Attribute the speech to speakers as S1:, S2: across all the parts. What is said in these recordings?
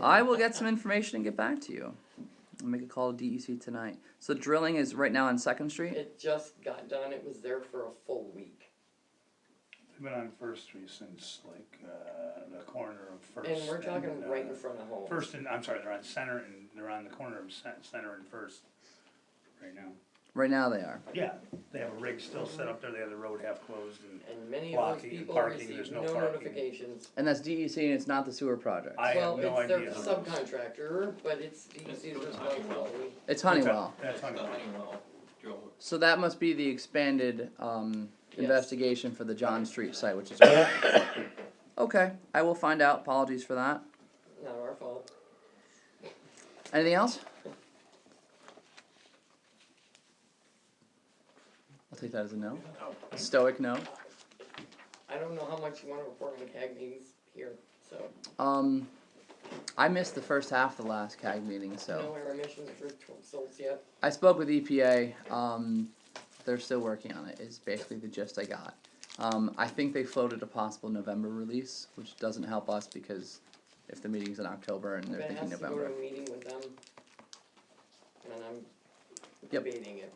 S1: I will get some information and get back to you. I'll make a call to DEC tonight. So drilling is right now on Second Street?
S2: It just got done, it was there for a full week.
S3: I've been on First Street since like, uh, the corner of First.
S2: And we're talking
S3: and, uh,
S2: right in front of home.
S3: First and, I'm sorry, they're on Center and, they're on the corner of Cen- Center and First right now.
S1: Right now they are.
S3: Yeah, they have a rig still set up there, they have the road half closed and
S2: And many of those
S3: Blocking,
S2: people
S3: parking,
S2: received
S3: there's
S2: no
S3: no parking.
S2: notifications.
S1: And that's DEC and it's not the sewer project.
S3: I have no
S2: Well,
S3: idea.
S2: it's their subcontractor, but it's, you see, there's no problem.
S1: It's Honeywell.
S3: That's Honeywell.
S1: So that must be the expanded um,
S2: Yes.
S1: investigation for the John Street site, which is okay. I will find out. Apologies for that.
S2: not our fault.
S1: Anything else? I'll take that as a no. Stoic no.
S2: I don't know how much you wanna report on CAG meetings here, so,
S1: Um, I missed the first half of the last CAG meeting, so.
S2: no air emissions for results yet.
S1: I spoke with EPA. Um, they're still working on it. Is basically the gist I got. Um, I think they floated a possible November release, which doesn't help us because if the meeting's in October and
S2: But
S1: they're
S2: it
S1: thinking
S2: has to go to
S1: November,
S2: a meeting with them. And I'm
S1: Yep.
S2: debating it,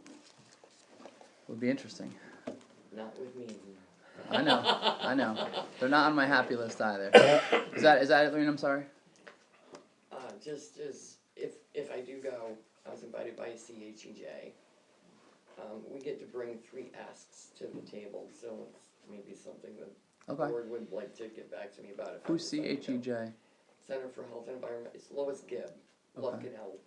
S1: would be interesting.
S2: not with me.
S1: I know, I know. They're not on my happy list either. Is that is that it, Lorene? I'm sorry.
S2: Uh, just as, if, if I do go, I was invited by CHEJ. Um, we get to bring three asks to the table, so it's maybe something that the
S1: Okay.
S2: board would like to get back to me about if I
S1: Who's E
S2: decide to go.
S1: CHEJ?
S2: Center for Health and Environment, it's Lois Gibb,
S1: Okay.
S2: Lufkin Health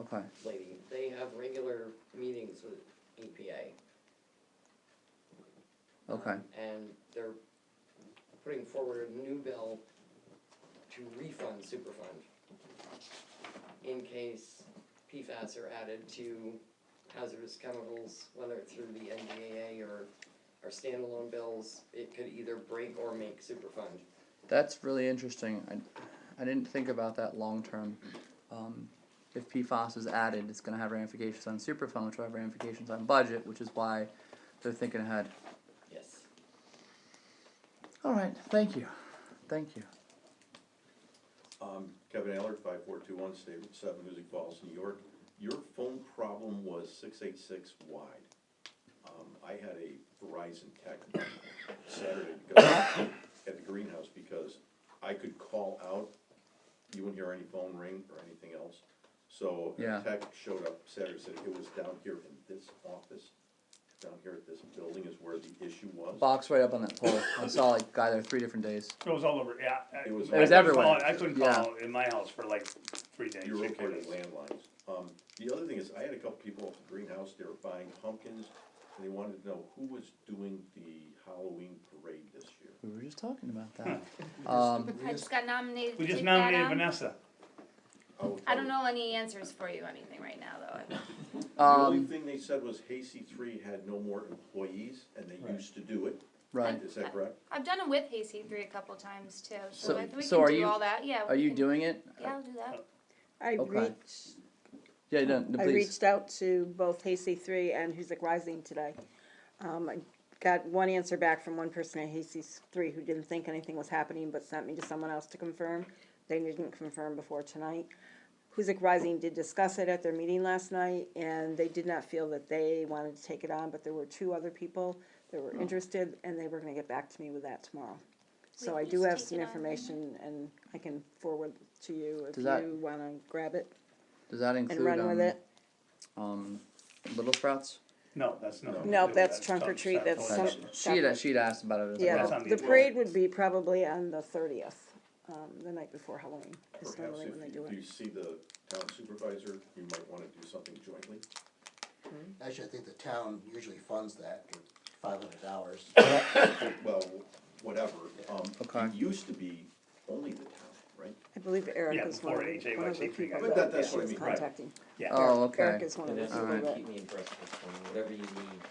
S1: Okay.
S2: lady, they have regular meetings with E EPA.
S1: Okay.
S2: And they're putting forward a new bill to refund Superfund in case PFAS are added to hazardous chemicals, whether it's through the NDAA or, or standalone bills, it could either break or make Superfund.
S1: That's really interesting. I, I didn't think about that long term. Um, if PFAS is added, it's going to have ramifications on Superfund, which will have ramifications on budget, which is why they're thinking ahead.
S2: Yes.
S1: All right, thank you. Thank you.
S4: Um, Kevin Allard, five four two one, State Route seven, Music Falls, New York. Your phone problem was six eight six wide. Um, I had a Verizon tech Saturday go at the greenhouse because I could call out, you wouldn't hear any phone ring or anything else. So
S1: Yeah.
S4: a tech showed up Saturday, said it was down here in this office, down here at this building is where the issue was.
S1: Box right up on that pole. I saw like guy there three different days.
S3: It was all over, yeah. I-
S4: It was
S3: I
S4: It was
S3: couldn't
S1: everywhere.
S3: call- I couldn't
S1: Yeah.
S3: call in my house for like three days,
S4: You were
S3: six
S4: reporting
S3: days.
S4: landlines. Um, the other thing is, I had a couple people at the greenhouse, they were buying pumpkins, and they wanted to know who was doing the Halloween parade this year.
S1: We were just talking about that. Um,
S5: I just got nominated. to
S3: We just
S5: take that
S3: nominated
S5: on.
S6: um,
S3: Vanessa.
S4: will
S5: I
S4: tell
S5: don't
S4: you,
S5: know any answers for you, anything right now, though.
S4: The only
S1: um,
S4: thing they said was Hasty Three had no more employees, and they
S3: Right.
S4: used to do it.
S1: right.
S4: Is that correct?
S5: I've done it with Hasty three a couple times too, so,
S1: So-
S5: I- we
S1: so
S5: can
S1: are
S5: do
S1: you-
S5: all that. Yeah.
S1: Are
S5: we
S1: you
S5: can-
S1: doing it?
S5: Yeah, I'll do that.
S6: I
S1: Okay.
S6: reached,
S1: Yeah, no, no,
S6: I
S1: please.
S6: reached out to both Hasty Three and Huzik Rising today. Um, I got one answer back from one person at Hasty Three who didn't think anything was happening, but sent me to someone else to confirm. They didn't confirm before tonight. Huzik Rising did discuss it at their meeting last night, and they did not feel that they wanted to take it on, but there were two other people that
S5: Hmm.
S6: were interested, and they were gonna get back to me with that tomorrow. So
S5: We
S6: I
S5: can
S6: do
S5: just
S6: have
S5: take
S6: some
S5: it on.
S6: information, and I can forward to you if
S1: Does that-
S6: you wanna grab it
S1: Does that
S6: and
S1: include
S6: run
S1: um,
S6: with it.
S1: um, Little Sprouts?
S3: No, that's not.
S6: No, that's trunk or treat, that's
S1: Okay.
S6: some-
S1: She had she'd asked about it as
S6: Yeah,
S3: That's
S1: well.
S3: on
S6: the-
S3: the
S6: the parade would be probably on the thirtieth, um, the night before Halloween, is
S4: Perhaps
S6: normally
S4: if
S6: when they
S4: you,
S6: do
S4: do you
S6: it.
S4: see the town supervisor, you might wanna do something jointly.
S7: Actually, I think the town usually funds that for five hundred dollars.
S4: Well, whatever, um,
S1: Okay.
S4: it used to be only the town, right?
S6: I believe
S3: Yeah,
S6: Eric is one
S3: before
S6: of the,
S3: HAYYC
S6: one of the
S3: three got
S6: people
S4: But that-
S6: that
S4: that's
S6: she
S4: what I
S6: was
S4: mean, right.
S6: contacting.
S3: Yeah,
S1: Oh,
S6: Eric- Eric
S1: okay.
S6: is one of
S8: And that's
S6: the,
S8: the
S1: Alright.
S8: one that keep me impressed with, um, whatever you need.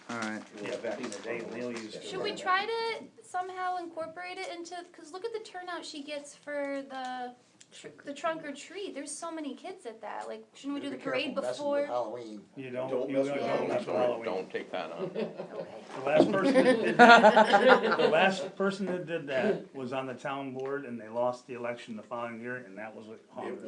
S1: All right.
S3: Yeah, back in the day, Neil used to-
S5: Should we try to somehow incorporate it into? Because look at the turnout she gets for the tr- the trunk or treat. There's so many kids at that. Like, shouldn't we do the
S7: Be careful
S5: parade
S7: messing with
S5: before?
S7: Halloween.
S3: you don't,
S4: Don't
S3: you
S4: mess
S3: don't
S4: with
S3: don't
S5: Halloween.
S3: mess with Halloween.
S9: Don't take that on.
S5: Okay.
S3: The last person that did that, the last person that did that was on the town board and they lost the election the following year and that was what
S4: It
S3: haunted